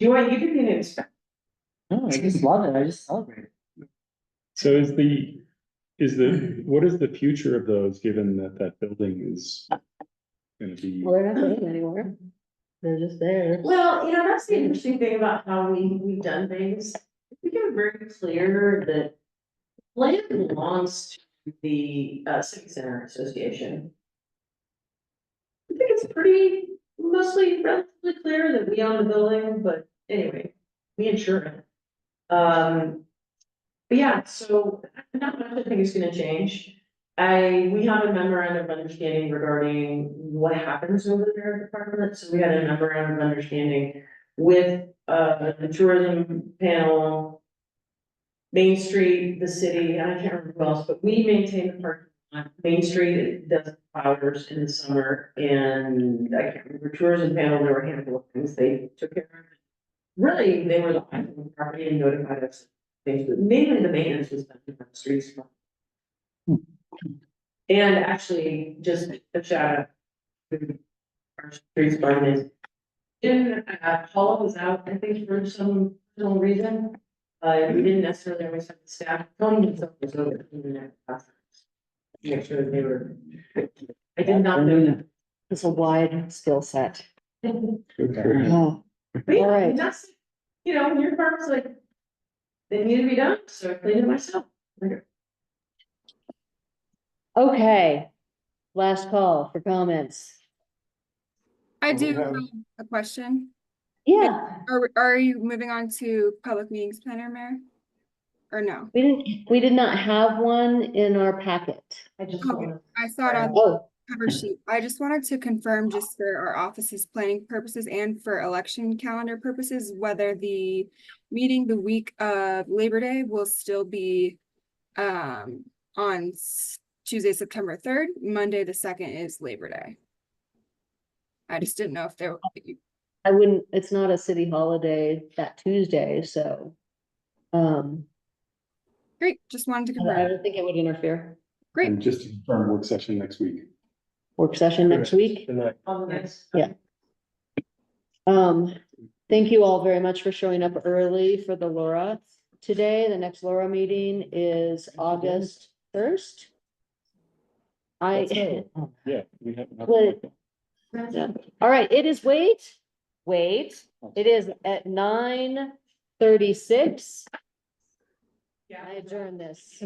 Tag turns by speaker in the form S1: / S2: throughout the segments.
S1: Joy, you didn't even expect.
S2: No, I just love it. I just celebrate. it.
S3: So is the, is the, what is the future of those, given that that building is gonna be,
S4: Well, they're not going anywhere. They're just there.
S1: Well, you know, that's the interesting thing about how we, we've done things. We can very clear that land belongs to the, uh, Civic Center Association. I think it's pretty, mostly relatively clear that we own the building, but anyway, we insure it. Um, but yeah, so not much I think is gonna change. I, we have a memorandum of understanding regarding what happens over there at the department, so we had a memorandum of understanding with uh the tourism panel. Main Street, the city, and I can't remember who else, but we maintain the parking lot, Main Street does flowers in the summer, and I can't remember tourism panel, there were a handful of things they took care of. Really, they were the property and notified us, things, but mainly the maintenance was done on the streets. And actually, just a shout out. to Our streets department. Didn't, uh, Paul was out, I think, for some, some reason. Uh, we didn't necessarily always have the staff, Tony himself was over. he didn't have staff. Make sure they were. I did not know that.
S4: It's a wide skill set.
S3: okay,
S4: Oh,
S1: But yeah,
S4: Alright.
S1: that's, you know, your department's like. They need to be done, so I cleaned it myself.
S4: Okay. Last call for comments.
S5: I
S3: Well, we
S5: do
S3: have-
S5: have a question.
S4: Yeah,
S5: Are, we- are you moving on to public meetings planner, Mayor? Or no?
S4: we didn't, we did not have one in our packet.
S1: I just
S5: Okay.
S1: wanna-
S5: I saw it on the
S4: Oh,
S5: cover
S3: Uh,
S5: sheet. I just wanted to confirm just for our office's planning purposes and for election calendar purposes, whether the meeting the week of Labor Day will still be um, on s- Tuesday, September third, Monday, the second is Labor Day. I just didn't know if there,
S4: I wouldn't, it's not a city holiday that Tuesday, so. Um,
S5: great, just wanted to
S4: I don't- I
S5: confirm.
S4: don't think it would interfere.
S3: and just to confirm work session next week.
S4: Work session next week.
S1: On the next.
S4: Yeah. Um, thank you all very much for showing up early for the Laura today. The next Laura meeting is August first. I,
S3: Yeah, we have.
S4: Wait. all right, it is, wait, wait, it is at nine thirty-six.
S1: Yeah.
S4: I adjourn this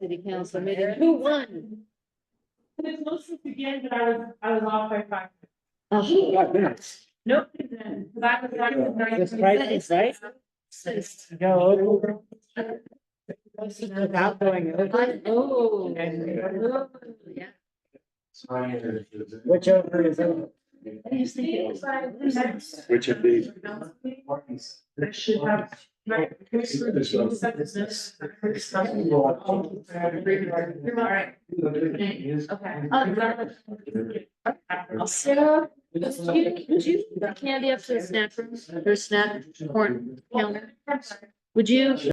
S4: city council meeting. Who won?
S1: It's listed again, but I was, I was off by five.
S4: Oh,
S3: Five minutes.
S1: Nope, because I was like.
S2: It's right, it's right. Go. Without going over,
S1: Oh.
S4: yeah.
S2: which over is over.
S3: Which of these?
S1: I should have. Right. Alright. Okay.
S4: Sarah, do you, would you, candy up to the snack room, or snack corn counter? Would you